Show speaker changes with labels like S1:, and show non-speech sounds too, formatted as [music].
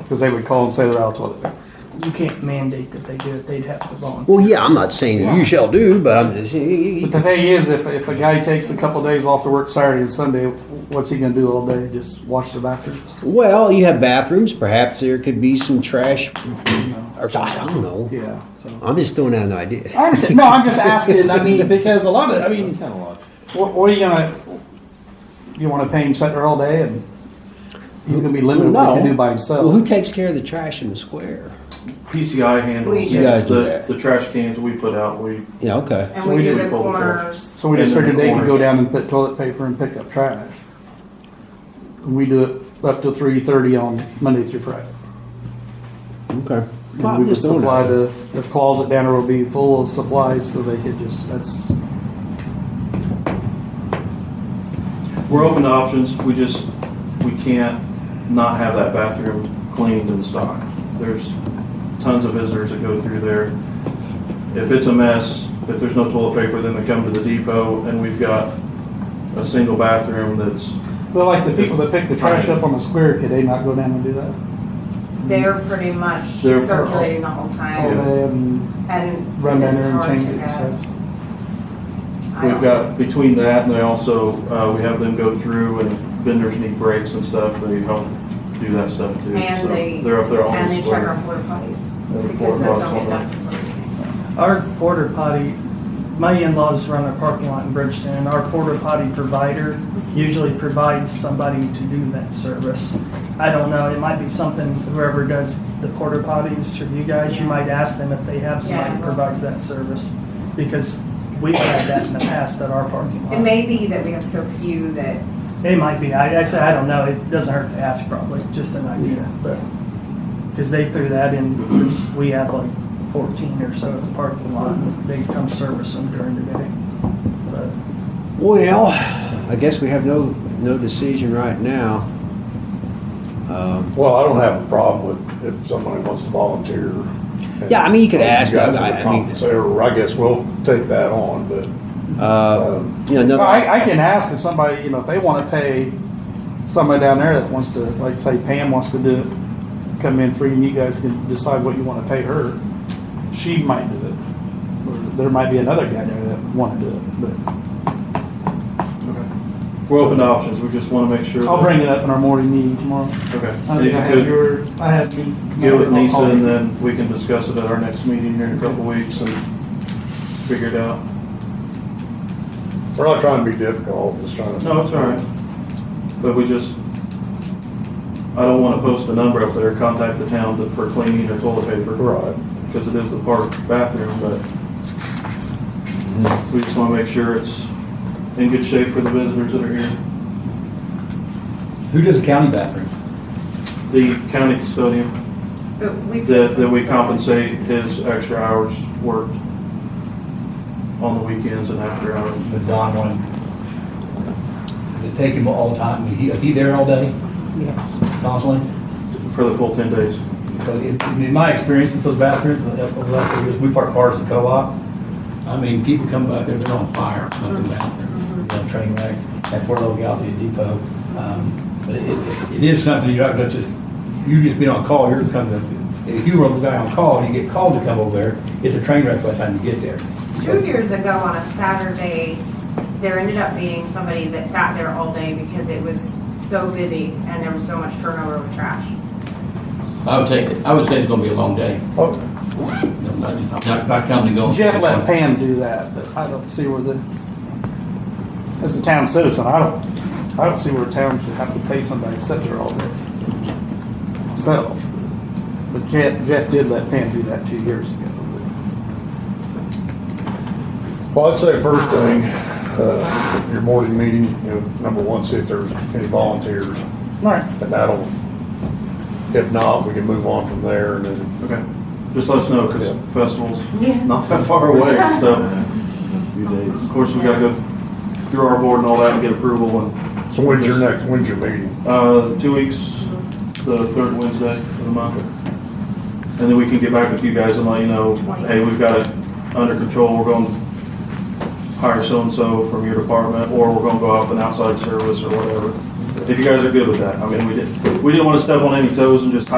S1: because they would call and say they're out of toilet
S2: You can't mandate that they do it, they'd have to volunteer.
S3: Well, yeah, I'm not saying that you shall do, but I'm just.
S1: But the thing is, if, if a guy takes a couple days off to work Saturday and Sunday, what's he gonna do all day? Just wash the bathrooms?
S3: Well, you have bathrooms. Perhaps there could be some trash, or I don't know.
S1: Yeah, so.
S3: I'm just throwing out an idea.
S1: I understand. No, I'm just asking. I mean, because a lot of, I mean,
S4: Kind of logical.
S1: what, what are you gonna, you wanna pay him sit there all day and he's gonna be limited what he can do by
S3: Well,
S1: himself?
S3: who takes care of the trash in the square?
S4: PCI handles
S3: You guys do
S4: the,
S3: that.
S4: the trash cans we put out, we,
S3: Yeah, okay.
S5: And
S4: So
S5: we
S4: we
S5: do
S4: do
S5: the
S4: public charge.
S5: corners.
S1: So we just
S4: And in the
S1: figured they could
S4: corner.
S1: go down and put toilet paper and pick up trash. And we do it up to three thirty on Monday through Friday.
S3: Okay.
S1: And we would supply the, the closet down there would be full of supplies, so they could just, that's,
S4: we're open to options, we just, we can't not have that bathroom cleaned and stocked. There's tons of visitors that go through there. If it's a mess, if there's no toilet paper, then they come to the depot and we've got a single bathroom that's,
S1: well, like the people that pick the trash up on the square, could they not go down and do that?
S5: They're pretty much
S4: They're-
S5: circulating the whole
S1: All
S5: time
S1: day and
S5: and
S1: run down
S5: it's
S1: there and
S5: hard
S1: change
S5: to
S1: it and
S5: go.
S1: stuff?
S5: I
S4: we've
S5: don't-
S4: got, between that and they also, uh, we have them go through and vendors need breaks and stuff, they help do that stuff too. So
S5: And they,
S4: They're up there on
S5: and
S4: the
S5: they check our
S4: square.
S5: porta potties
S4: the
S5: because
S4: porta
S5: those
S4: potties
S5: don't get
S4: on
S5: done
S4: that.
S5: until evening.
S6: Our porter potty, my in-laws run a parking lot in Bridgeton, and our porter potty provider usually provides somebody to do that service. I don't know, it might be something, whoever does the porter potties through you guys, you might ask them if they have somebody
S5: Yeah.
S6: who provides that service. Because we've had that in the past at our parking
S5: It
S6: lot.
S5: may be that we have so few that,
S6: It might be, I, I say, I don't know, it doesn't hurt to ask probably, just an idea, but. Because they threw that in, 'cause we have like fourteen or so at the parking lot, they come service them during the day. But
S3: Well, I guess we have no no decision right now. Um,
S7: Well, I don't have a problem with if somebody wants to volunteer.
S3: Yeah, I mean, you could ask,
S7: You guys
S3: I- I
S7: would
S3: mean-
S7: compensate, or I guess we'll take that on, but,
S3: uh,
S7: um,
S3: you know,
S1: Well,
S3: another,
S1: I, I can ask if somebody, you know, if they wanna pay somebody down there that wants to, like say Pam wants to do, it, come in three and you guys can decide what you wanna pay her. She might do it, or there might be another guy there that wanna do it, but
S4: We're open to options, we just want to make sure.
S1: I'll
S4: that-
S1: bring it up in our morning meeting tomorrow.
S4: Okay.
S1: I
S4: And
S1: think I
S4: if you
S1: have
S4: could,
S1: your, I have Lisa's.
S4: Get with
S1: number. I'll
S4: Nisa
S1: call
S4: and
S1: her.
S4: then we can discuss it at our next meeting here in a couple weeks and figure it out.
S7: we're not trying to be difficult, just trying to.
S4: No, it's all right. But we just, I don't want to post a number up there, contact the town to- for cleaning or toilet paper,
S7: Right.
S4: because it is the park bathroom, but we just want to make sure it's in good shape for the visitors that are here.
S8: Who does the county bathroom?
S4: The county custodian,
S5: but we.
S4: that, that we compensate his extra hours worked on the weekends and after hours.
S8: The Don one? They take him all the time, He- is he there all day
S2: Yes.
S8: constantly?
S4: For the full ten days.
S8: So in, in my experience with those bathrooms, uh, over the last few years, we park cars at co-op. I mean, people come back there, they're on fire up in the bathroom, you know, train wreck, that poor little gal at the depot. Um, But it, it- it is something you're not gonna just, you just being on call, you're coming to, if you were the guy on call and you get called to come over there, it's a train wreck by the time you get there.
S5: Two years ago on a Saturday, there ended up being somebody that sat there all day because it was so busy and there was so much turnover with trash.
S8: I would take it, I would say it's gonna be a long day.
S7: Okay.
S8: Not, not counting the go.
S1: Jeff let Pam do that, but I don't see where the, as a town citizen, I don't, I don't see where a town should have to pay somebody to sit there all day. Myself. But Jeff, Jeff did let Pam do that two years ago.
S7: Well, I'd say first thing, uh, your morning meeting, you know, number one, see if there's any volunteers,
S1: All right,
S7: and that'll, if not, we can move on from there, and then
S4: Okay. Just let us know, because
S7: Yeah.
S4: festival's
S5: Yeah.
S4: not that [laughs] far away, so. Of course, we gotta go through our board and all that and get approval and,
S7: So when's your next, when's your meeting?
S4: uh, two weeks, the third Wednesday of the month. And then we can get back with you guys and let you know, hey, we've got it under control, we're going to hire so-and-so from your department, or we're gonna go out with an outside service or whatever. If you guys are good with that, I mean, we didn't, we didn't wanna step on any toes and just